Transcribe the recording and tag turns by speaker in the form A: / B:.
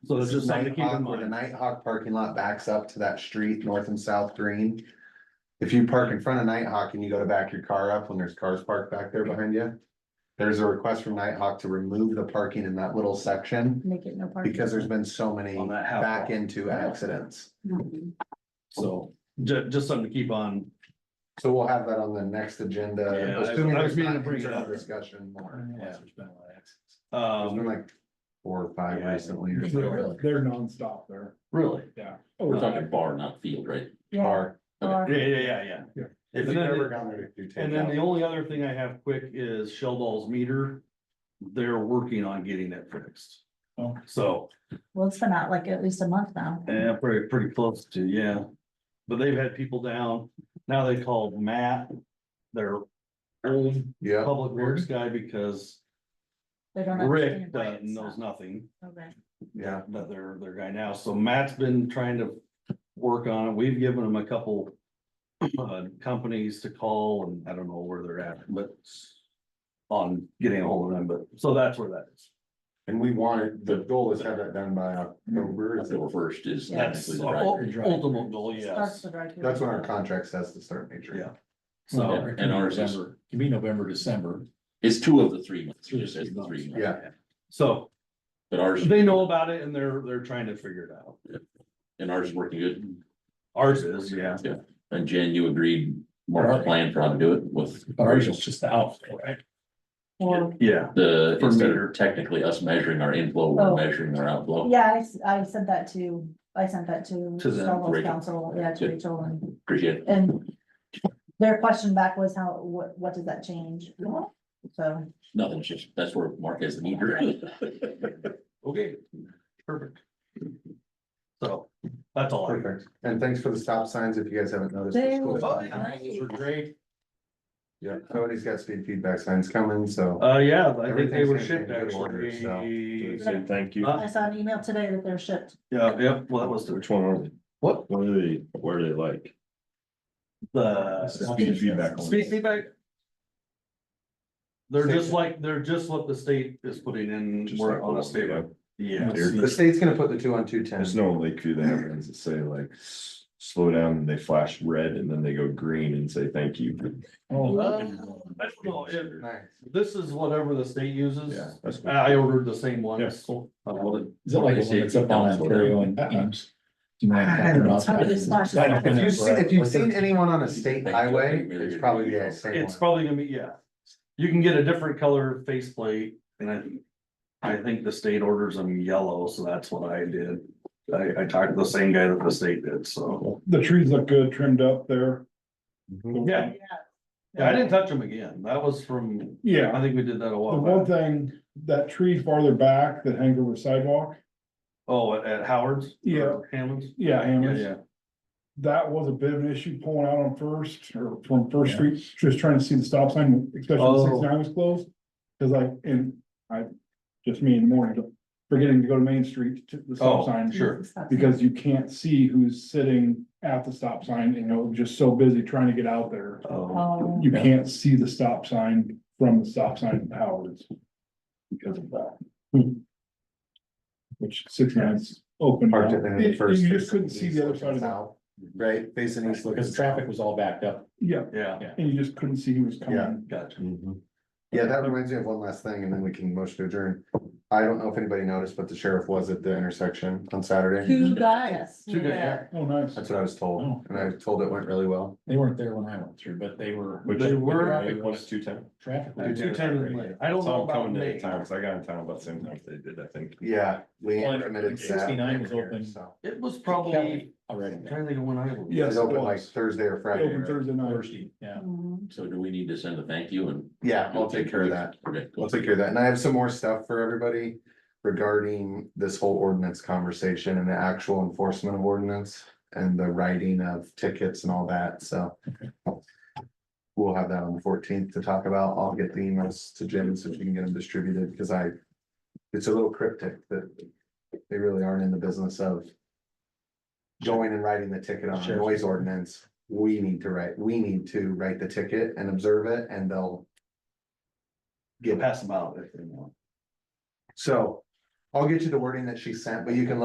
A: So it's just something to keep in
B: Nighthawk, where The
A: mind.
B: Nighthawk parking lot backs up to that street, north and south green. If you park in front of Nighthawk and you go to back your car up when there's cars parked back there behind you. There's a request from Nighthawk to remove the parking in that little section
C: Make it no parking.
B: because there's been so many
A: On that half
B: back
A: wall.
B: into accidents.
C: Mhm.
A: So ju- just something to keep on.
B: So we'll have that on the next
A: Yeah,
B: agenda.
A: I-
B: assuming
A: I was
B: there's
A: meaning to
B: not
A: bring it
B: internal
A: up.
B: Discussion more. Yeah. There's been
A: Um,
B: like four or five
A: Yeah.
B: recently or
D: They're
B: so.
D: they're nonstop there,
E: Really?
D: yeah.
E: Oh, We're talking bar, not field, right?
C: Yeah.
B: Are,
C: or-
A: yeah, yeah, yeah, yeah.
D: Yeah.
A: If
B: if
A: you
B: you've ever
A: never-
B: gone there to do takeout.
A: And then the only other thing I have quick is Sheldall's meter. They're working on getting it fixed.
D: Oh.
A: So,
C: Well, it's been out like at least a month now.
A: yeah, pretty, pretty close to, yeah. But they've had people down. Now they called Matt, their old
B: Yeah.
A: public works guy, because
C: They don't
A: Rick
C: understand why
A: doesn't-
C: it's
A: knows
C: not.
A: nothing.
C: Okay.
B: Yeah,
A: that their, their guy now, so Matt's been trying to work on it, we've given him a couple. Uh, companies to call and I don't know where they're at, but. On getting a hold of them, but, so that's where that is.
B: and we wanted, the goal is to have that done by October. is
E: October
B: it?
E: first is.
C: Yeah.
A: That's
E: technically
A: our
E: right.
A: ul- ultimate goal,
C: Starts
A: yes,
C: the drive through.
B: That's when our contract says to start major.
A: Yeah.
E: Yeah,
A: so,
E: And ours is,
D: November, Give me November, December.
E: it's two of the three months, it just says the three. months.
B: Yeah,
A: so
E: But ours,
A: they know about it and they're, they're trying to figure it out.
E: and ours is working good.
A: Ours is, yeah,
E: And Jen, you agreed, mark the plan for how to do it with
D: Ours is just out, right?
C: Well,
A: yeah,
E: the,
A: For
E: instead
A: meter.
E: of technically us measuring our inflow, we're
C: Oh.
E: measuring our outflow.
C: yeah, I, s- I said that to, I sent that to.
A: To them,
C: Shell's
E: Rachel.
C: Council, yeah, to
E: Good.
C: Rachel and,
E: Appreciate it.
C: and their question back was how, what, what does that change? So.
E: Nothing, it's just, that's where Mark has the meter.
A: okay, perfect. So, that's all. I have.
B: perfect. And thanks for the stop signs, if you guys haven't noticed. the
C: They
B: school
C: were
B: stop signs
C: nice.
B: were great. Yeah, somebody's got speed feedback signs coming, so.
A: Uh, yeah, I think they
B: Everything's
A: were
B: gonna be
A: shipped
B: in good order,
A: actually. Uh,
C: so. Say
F: thank you.
A: Huh?
C: I saw an email today that they're shipped.
A: Yeah, yeah, well, that was the
F: Which one are they?
A: What?
F: What are they, what are they like?
A: The
F: Speed feedback. on
A: speed
F: it.
A: feedback. They're just like, they're just what the state is putting in,
F: Just
A: we're
F: like
A: on a
F: the
A: state
F: one,
A: road. Yeah.
F: Here.
B: The state's gonna put the two on two ten.
F: There's no Lakeview that have ones that say like, s- slow down, and they flash red and then they go green and say thank you.
D: Oh,
A: I don't know, it-
B: Nice.
A: This is whatever the state uses.
F: Yeah, that's cool.
A: I ordered the same one.
F: Yeah, cool.
D: Is it like the one that's up on Ontario and
F: Uh-uh.
D: Ames? Do you mind if I turn off?
C: I don't know.
D: I don't
B: If
D: know.
B: you've seen, if you've seen anyone on a state highway, it's probably the same
A: It's
B: one.
A: probably gonna be, yeah. You can get a different color faceplate and I. I think the state orders them yellow, so that's what I did. I, I talked to the same guy that the state did, so.
G: The trees look good trimmed up there.
A: Yeah, Yeah, I didn't touch them again. That was from,
G: Yeah,
A: I think we did that a
G: the
A: while
G: one
A: back.
G: thing, that tree farther back that hangs over sidewalk,
A: Oh, at- at Howard's?
G: Yeah.
A: Hammond's?
G: yeah,
A: Yeah,
G: Hammond's,
A: yeah.
G: that was a bit of an issue pulling out on first or from First Street, just trying to see the stop sign, especially when
A: Oh.
G: six nine was closed. Cause like, and I, just me in the morning, forgetting to go to Main Street to the
A: Oh.
G: stop sign.
A: Sure.
G: Because you can't see who's sitting at the stop sign, you know, just so busy trying to get out there.
A: Oh,
C: Um,
G: You can't see the stop sign from the stop sign at Howard's. Because of that.
B: Hmm.
G: Which six nines open.
B: Parked it
G: now.
B: in
G: You
B: the first.
G: you just couldn't see the other side of that,
B: South, Right, facing east. looking
D: Because traffic was all backed up.
G: yeah,
A: yeah,
G: and you just couldn't see who was
B: Yeah.
G: coming.
A: gotcha.
D: Mm-hmm.
B: Mhm. Yeah, that reminds me of one last thing, and then we can motion to adjourn. I don't know if anybody noticed, but the sheriff was at the intersection on Saturday.
C: Two guys.
A: Two guys, yeah.
G: Oh, nice.
B: That's what I was
D: Oh.
B: told, and I was told it went really well.
D: They weren't there when I went through, but they were.
F: Which-
A: They were-
F: It was two ten.
D: Traffic.
A: I
D: was-
A: do tend to like- I don't know
F: Saw them
A: about
F: coming to
A: May.
F: the town, 'cause I got in town about the same time they did, I think.
B: Yeah, we
D: Well,
B: committed that.
D: 69 was open.
B: So,
A: It was
D: Kelly
A: probably,
D: Already.
A: I'm trying to think of when I was.
G: Yes,
B: It
G: it
B: opened like
G: was.
B: Thursday or
G: It
B: Friday.
G: Opened
B: right?
G: Thursday night.
D: Thursday, yeah.
C: Mhm.
E: So do we need to send a thank you and?
B: Yeah, I'll take care of that.
E: Okay, cool.
B: We'll take care of that. And I have some more stuff for everybody regarding this whole ordinance conversation and the actual enforcement of ordinance and the writing of tickets and all that, so. We'll have that on the fourteenth to talk about. I'll get the emails to Jim so she can get them distributed, because I, it's a little cryptic that they really aren't in the business of going and writing the ticket on a
D: Sure.
B: noise ordinance. We need to write, we need to write the ticket and observe it, and they'll
A: Get past them out if they want.
B: so I'll get you the wording that she sent, but you can